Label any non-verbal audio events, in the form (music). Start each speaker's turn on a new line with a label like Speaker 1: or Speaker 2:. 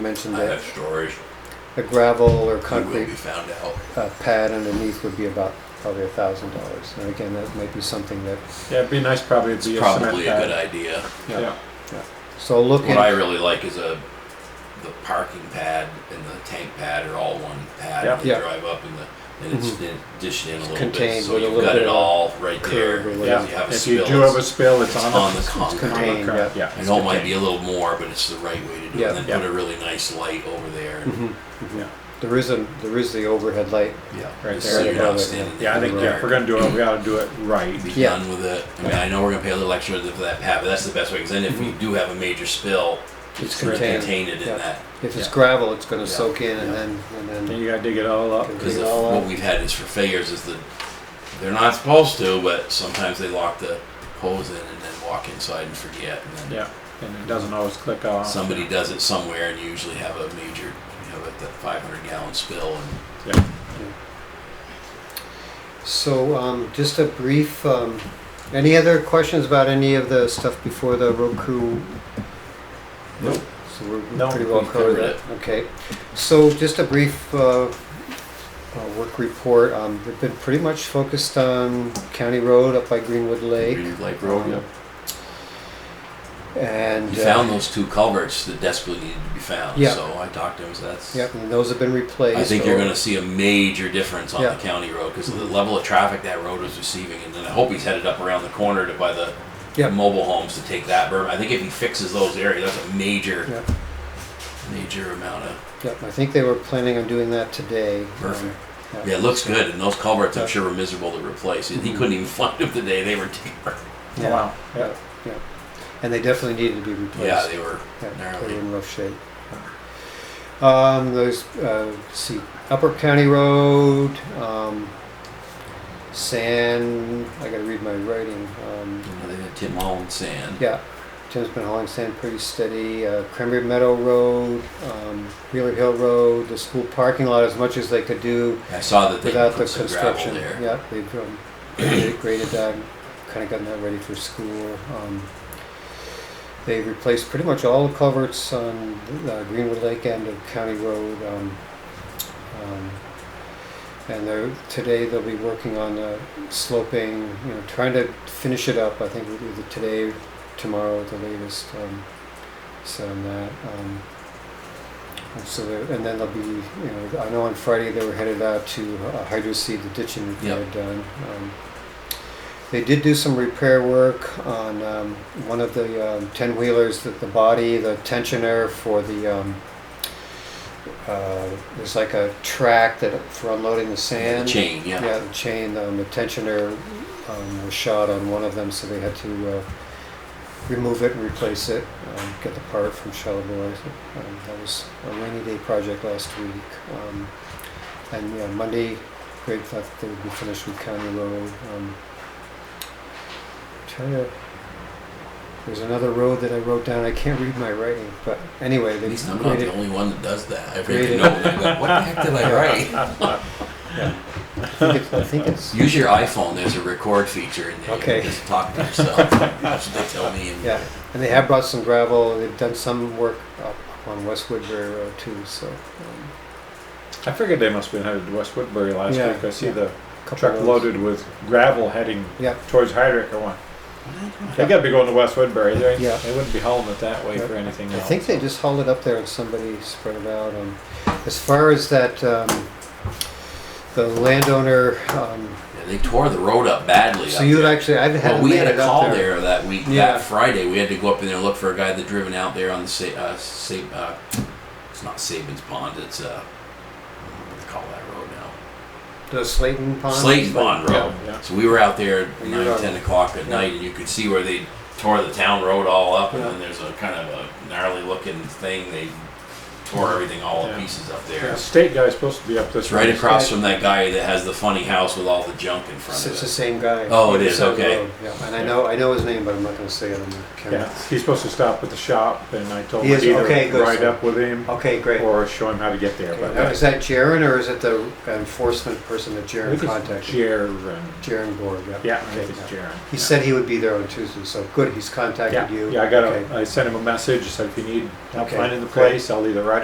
Speaker 1: mentioned
Speaker 2: I have
Speaker 1: that
Speaker 2: stories. Uh-huh.
Speaker 1: a gravel or
Speaker 2: You will
Speaker 1: concrete
Speaker 2: be found out.
Speaker 1: uh, pad underneath would be about probably a thousand dollars. And again, that might be something that,
Speaker 3: Yeah, it'd be nice probably to
Speaker 2: It's
Speaker 3: be
Speaker 2: probably a
Speaker 3: cement
Speaker 2: good
Speaker 3: pad.
Speaker 2: idea.
Speaker 3: Yeah.
Speaker 1: so look
Speaker 2: What I
Speaker 1: in,
Speaker 2: really like is a, the parking pad and the tank pad are all one pad.
Speaker 3: Yeah.
Speaker 2: You
Speaker 1: Yeah. Mm-hmm.
Speaker 2: drive up and the, and it's in- dished in a little bit,
Speaker 1: contained
Speaker 2: so
Speaker 1: with a
Speaker 2: you've
Speaker 1: little
Speaker 2: got
Speaker 1: bit
Speaker 2: it
Speaker 1: of
Speaker 2: all right
Speaker 1: curve
Speaker 2: there.
Speaker 1: or
Speaker 2: If
Speaker 1: whatever.
Speaker 2: you have a
Speaker 3: If
Speaker 2: spill,
Speaker 3: you do have a
Speaker 2: it's-
Speaker 3: spill, it's,
Speaker 2: it's
Speaker 3: on,
Speaker 2: on
Speaker 3: the,
Speaker 2: the concrete.
Speaker 3: on the
Speaker 1: Contained,
Speaker 3: curb.
Speaker 1: yeah.
Speaker 3: Yeah.
Speaker 2: I
Speaker 3: it's
Speaker 2: know it might be
Speaker 3: contained.
Speaker 2: a little more, but it's the right way to do
Speaker 1: Yeah.
Speaker 2: it. And then
Speaker 3: Yeah.
Speaker 2: put a really nice light over there. and-
Speaker 1: Mhm.
Speaker 3: Yeah.
Speaker 1: there is a, there is the overhead light.
Speaker 2: Yeah.
Speaker 3: Right
Speaker 2: Just
Speaker 3: there.
Speaker 2: So you're
Speaker 1: Above
Speaker 2: not
Speaker 1: it,
Speaker 2: standing.
Speaker 3: Yeah, I
Speaker 2: in the
Speaker 3: think yeah, if
Speaker 2: dark.
Speaker 3: we're gonna do it, we gotta do it right.
Speaker 2: be
Speaker 1: Yeah.
Speaker 2: done with it. I mean, I know we're gonna pay a little extra for that pad, but that's the best way, because then if we do have a major spill,
Speaker 1: It's
Speaker 2: gonna
Speaker 1: Mm-hmm. contained.
Speaker 2: Contain it in
Speaker 1: Yeah.
Speaker 2: that,
Speaker 1: If it's
Speaker 3: Yeah.
Speaker 1: gravel, it's gonna
Speaker 2: Yeah.
Speaker 1: soak in and
Speaker 2: Yeah.
Speaker 1: then, and
Speaker 3: Then
Speaker 1: then,
Speaker 3: you gotta dig it all up.
Speaker 1: Okay.
Speaker 2: because
Speaker 1: Dig it all
Speaker 2: what
Speaker 1: up.
Speaker 2: we've had is for failures is that they're not supposed to, but sometimes they lock the hose in and then walk inside and forget, and then
Speaker 3: Yeah. And it doesn't always click on.
Speaker 2: somebody does it somewhere and you usually have a major, you have a five hundred gallon spill and
Speaker 3: Yeah.
Speaker 1: so, um, just a brief, um, any other questions about any of the stuff before the road crew?
Speaker 3: Nope.
Speaker 1: So we're
Speaker 3: No,
Speaker 1: pretty well
Speaker 2: we
Speaker 1: covered
Speaker 2: covered
Speaker 1: that, okay. So just a brief, uh, uh, work report, um, we've been pretty much focused on County Road up by Greenwood Lake
Speaker 2: Green Lake Road.
Speaker 1: yeah. and.
Speaker 2: We
Speaker 1: uh,
Speaker 2: found those two culverts that desperately needed to be found,
Speaker 1: Yeah.
Speaker 2: so I talked to him, so that's.
Speaker 1: Yep, and those have been replaced.
Speaker 2: I think you're
Speaker 1: or-
Speaker 2: going to see a major difference on
Speaker 1: Yeah. Mm-hmm.
Speaker 2: the county road because of the level of traffic that road is receiving, and then I hope he's headed up around the corner to by the
Speaker 1: Yeah.
Speaker 2: mobile homes to take that berm. I think if he fixes those areas, that's a major,
Speaker 1: Yep,
Speaker 2: major amount of.
Speaker 1: yep, I think they were planning on doing that today.
Speaker 2: Perfect.
Speaker 1: Um,
Speaker 2: Yeah, it looks good, and those culverts
Speaker 1: Yeah. Mm-hmm.
Speaker 2: I'm sure were miserable to replace. He he couldn't even (laughs) find them today; they were deeper.
Speaker 1: Yeah.
Speaker 3: Wow. Yeah.
Speaker 1: Yeah, yeah. And they definitely needed to be
Speaker 2: Yeah,
Speaker 1: replaced.
Speaker 2: they were
Speaker 1: Yeah,
Speaker 2: gnarly.
Speaker 1: They were in rough shape. Um, those, uh, let's see, Upper County Road, um, Sand, I gotta read my writing, um,
Speaker 2: you know, they had Tim Holland sand.
Speaker 1: yeah. Tim's been hauling sand pretty steady, uh, Cranberry Meadow Road, um, Wheeler Hill Road, the school parking lot, as much as they could do.
Speaker 2: I saw that they
Speaker 1: Without the
Speaker 2: put some gravel
Speaker 1: construction,
Speaker 2: there.
Speaker 1: yeah, they've um, graded graded that, kind of gotten that ready for school. Um, They replaced pretty much all the culverts on uh, Greenwood Lake end of County Road. um, um, And they're, today they'll be working on the sloping, you know, trying to finish it up, I think either today, tomorrow at the latest. um, So on that. um, and So, there- and then they'll be, you know, I know on Friday they were headed out to uh, hydroseed the ditching repair
Speaker 2: Yep.
Speaker 1: done. Um, They did do some repair work on um, one of the ten-wheelers, that the body, the tensioner for the, um, uh, there's like a track that, for unloading the
Speaker 2: The
Speaker 1: sand.
Speaker 2: chain, yeah.
Speaker 1: Yeah, the chain, um, the tensioner um, was shot on one of them, so they had to uh, remove it and replace it, um, get the part from Charlevoix. Um, that was a rainy day project last week. Um, and yeah, Monday, Greg thought that they would be finished with County Road. Um, trying to, there's another road that I wrote down. I can't read my writing, but anyway, they
Speaker 2: At least I'm not
Speaker 1: graded-
Speaker 2: the only one that does that. I
Speaker 1: Graded.
Speaker 2: read the note and I go, what the heck
Speaker 1: (laughs)
Speaker 2: did I write?
Speaker 1: I think it's- I think
Speaker 2: (laughs)
Speaker 1: it's (laughs)
Speaker 2: Use your iPhone. There's a record feature in there.
Speaker 1: Okay.
Speaker 2: You can just talk
Speaker 1: (laughs)
Speaker 2: to yourself. That's what they tell me. And
Speaker 1: Yeah, and they have brought some gravel, they've done some work up on West Woodbury Road too, so. um,
Speaker 3: I figured they must have been headed to West Woodbury last
Speaker 1: Yeah,
Speaker 3: week. I see
Speaker 1: yeah.
Speaker 3: the
Speaker 1: couple
Speaker 3: truck
Speaker 1: of those.
Speaker 3: loaded with gravel heading
Speaker 1: Yeah.
Speaker 3: towards Hydrick or one. They gotta be going to West Woodbury. They,
Speaker 1: Yeah.
Speaker 3: they wouldn't be hauling it that way
Speaker 1: Yeah.
Speaker 3: for anything
Speaker 1: I
Speaker 3: else.
Speaker 1: think they just hauled it up there and somebody spread it out. um, As far as that, um, the landowner, um,
Speaker 2: Yeah, they tore the road up badly.
Speaker 1: so
Speaker 2: up
Speaker 1: you would
Speaker 2: there.
Speaker 1: actually, I've had.
Speaker 2: Well, we
Speaker 1: them
Speaker 2: had a
Speaker 1: made it up
Speaker 2: call there. that week,
Speaker 1: Yeah.
Speaker 2: that Friday. We had to go up in there and look for a guy that driven out there on the Sa- uh, Sa- uh, it's not Sabins Pond. It's uh, what do they call that road now?
Speaker 1: The Slayton Pond?
Speaker 2: Slayton Pond
Speaker 3: Yeah,
Speaker 2: Road.
Speaker 3: yeah.
Speaker 2: So we were out there at
Speaker 1: We
Speaker 2: nine,
Speaker 1: were-
Speaker 2: ten o'clock at
Speaker 1: yeah.
Speaker 2: night, and you could see where they tore the town road all up, and
Speaker 1: Yeah.
Speaker 2: then there's a kind of a gnarly looking thing. They tore everything all
Speaker 3: Yeah.
Speaker 2: to pieces up there.
Speaker 3: The state guy's supposed to be up this
Speaker 2: It's right
Speaker 3: way.
Speaker 2: across from that guy that has the funny house with all the junk in front
Speaker 1: It's
Speaker 2: of
Speaker 1: it's the
Speaker 2: it.
Speaker 1: same guy.
Speaker 2: Oh, it is,
Speaker 1: Beside the
Speaker 2: okay.
Speaker 1: road, Yeah, and I know, I know his name, but I'm not gonna say it on the camera.
Speaker 3: Yeah, he's supposed to stop at the shop, and I told
Speaker 1: He
Speaker 3: him
Speaker 1: is-
Speaker 3: either
Speaker 1: okay, good,
Speaker 3: ride
Speaker 1: so-
Speaker 3: up with him
Speaker 1: Okay, great.
Speaker 3: or show him how to get there.
Speaker 1: Okay,
Speaker 3: But
Speaker 1: now Is that Jaren or is it the enforcement person that
Speaker 3: I
Speaker 1: Jaren
Speaker 3: think it's
Speaker 1: contacted?
Speaker 3: Jaron.
Speaker 1: Jaron Borg, yeah.
Speaker 3: Yeah, I think
Speaker 1: Okay,
Speaker 3: it's
Speaker 1: yeah.
Speaker 3: Jaron.
Speaker 1: He
Speaker 3: yeah.
Speaker 1: said he would be there on Tuesday, so good, he's
Speaker 3: yeah.
Speaker 1: contacted you.
Speaker 3: Yeah, I got
Speaker 1: Okay.
Speaker 3: a, I sent him a message. said if you need help
Speaker 1: Okay,
Speaker 3: finding the
Speaker 1: great.
Speaker 3: place, I'll either ride